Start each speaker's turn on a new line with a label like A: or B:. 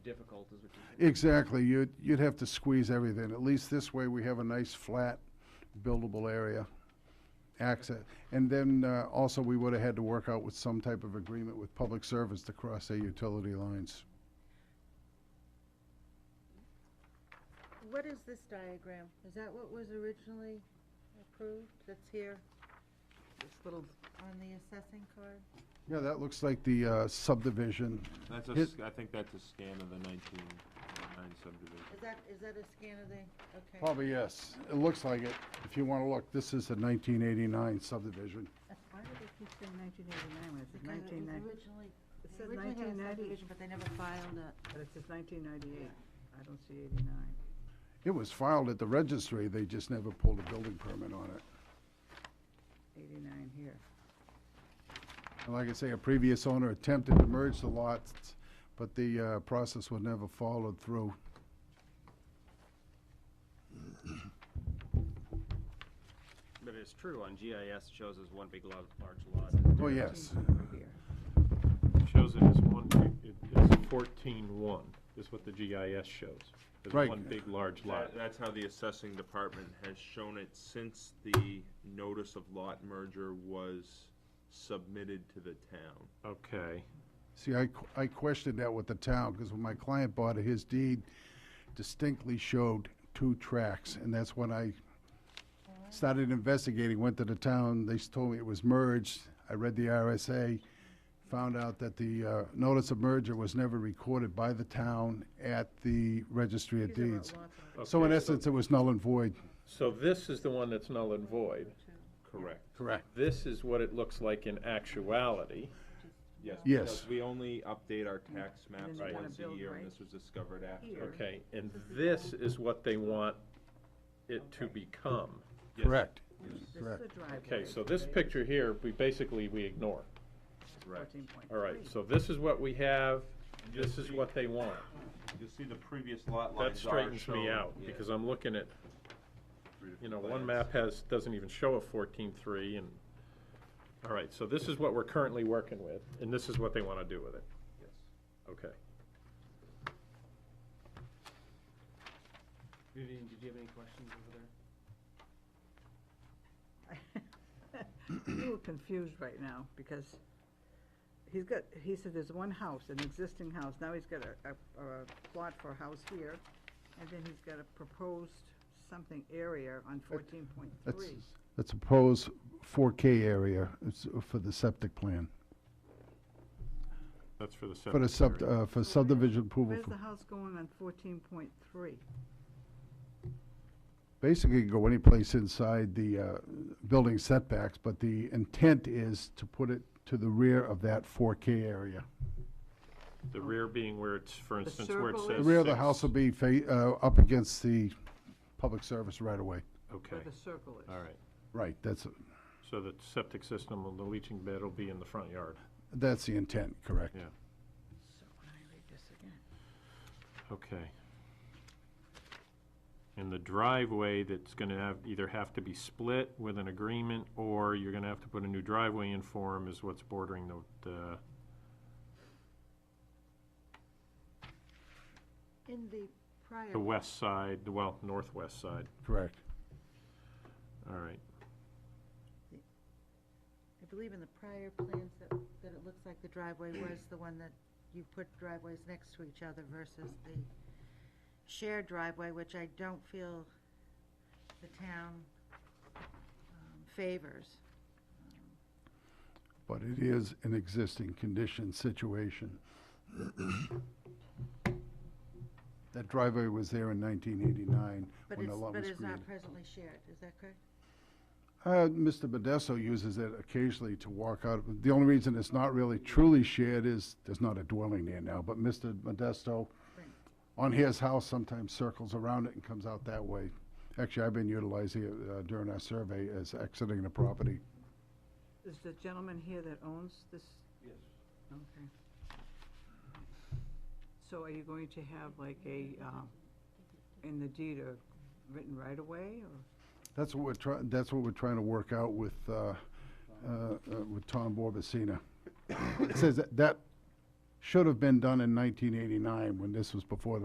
A: difficult is what you.
B: Exactly, you'd, you'd have to squeeze everything, at least this way we have a nice flat buildable area access. And then, uh, also, we would've had to work out with some type of agreement with public service to cross their utility lines.
C: What is this diagram? Is that what was originally approved that's here
D: This little,
C: on the assessing card?
B: Yeah, that looks like the uh, subdivision,
E: That's a
B: His-
E: s I think that's a scan of the nineteen nine subdivision.
C: Is that, is that a scan of the, okay.
B: probably yes, it looks like it, if you wanna look, this is the nineteen eighty-nine subdivision.
D: why do they keep saying nineteen eighty-nine when it says
C: Because it was
D: nineteen ninety?
C: originally,
D: It
C: they
D: says
C: originally had a
D: 1990.
C: subdivision, but they never filed it.
D: But it says nineteen ninety-eight. I don't see eighty-nine.
B: It was filed at the registry, they just never pulled a building permit on it.
D: Eighty-nine here.
B: And like I say, a previous owner attempted to merge the lots, but the uh, process was never followed through.
A: But it's true, on GIS, it shows as one big lo- large lot.
B: Oh, yes.
D: Over here.
F: shows it as one, big- it- it's fourteen one, is what the GIS shows. as
B: Right.
F: one big, large lot.
E: That- That's how the assessing department has shown it since the notice of lot merger was submitted to the town.
F: Okay.
B: See, I, qu- I questioned that with the town, because when my client bought it, his deed distinctly showed two tracks, and that's when I started investigating, went to the town, they s- told me it was merged, I read the RSA, found out that the uh, notice of merger was never recorded by the town at the registry of
C: These are what
B: deeds.
C: lots are.
B: So in
F: Okay,
B: essence, it was null and void.
F: So this is the one that's null and void.
E: Correct.
B: Correct.
F: This is what it looks like in actuality.
E: Yes.
B: Yes.
E: because We only update our tax maps
D: then you gotta
E: once a
D: build
E: year,
D: right
E: and this was discovered
D: here.
E: after.
F: Okay, and this is what they want it to become.
E: Yes,
D: This is
B: Correct.
D: the driveway.
F: Okay, so this picture here, we basically, we ignore.
E: Correct.
D: Fourteen point three.
F: All right, so this is what we have, this is what they want.
E: You'll see the previous lot
F: That
E: lines are
F: straightens me
E: shown.
F: out,
E: Yeah,
F: because I'm looking at
E: three different
F: you know, one
E: plans.
F: map has, doesn't even show a fourteen-three, and, all right, so this is what we're currently working with, and this is what they want to do with it,
E: Yes.
F: okay.
A: Vivian, did you have any questions over there?
D: I'm a little confused right now, because he's got, he said there's one house, an existing house, now he's got a, a, a plot for a house here, and then he's got a proposed something area on fourteen point
B: That's,
D: three.
B: that's a proposed 4K area It's uh, for the septic plan,
F: That's for the
B: for the sub, uh, for subdivision approval.
D: Where's
B: for-
D: the house going on fourteen point three?
B: Basically, you can go any place inside the uh, building setbacks, but the intent is to put it to the rear of that 4K area.
F: The rear being where it's, for
D: The
F: instance, where it
D: circle
F: says.
B: The rear of the
F: six.
B: house will be fa- uh, up against the public service right away.
F: Okay,
D: Where the circle is?
F: all right,
B: Right, that's,
F: so the septic system and the leaching bed will be in the front yard,
B: that's the intent, correct.
F: Yeah.
D: So when I read this again,
F: okay. And the driveway that's gonna have, either have to be split with an agreement, or you're gonna have to put a new driveway in for 'em is what's bordering the, the
C: In the prior.
F: The west side, the well, northwest side,
B: Correct.
F: all right.
C: I believe in the prior plans that, that it looks like the driveway was the one that you put driveways next to each other versus the shared driveway, which I don't feel the town um, favors.
B: But it is an existing condition situation. That driveway was there in 1989
C: But
B: when
C: it's,
B: the lot
C: but
B: was
C: it's
B: created.
C: not presently shared, is that correct?
B: Uh, Mr. Modesto uses it occasionally to walk out. The only reason it's not really truly shared is there's not a dwelling there now, but Mr. Modesto
C: Right.
B: on his house sometimes circles around it and comes out that way. Actually, I've been utilizing it uh, during our survey as exiting the property.
D: is the gentleman here that owns this?
E: Yes.
D: Okay. So are you going to have like a, um, in the deed, a written right away, or?
B: That's what we're trying, that's what we're trying to work out with, uh, uh, uh, with Tom Borbacina. It says that that should have been done in nineteen eighty-nine, when this was before the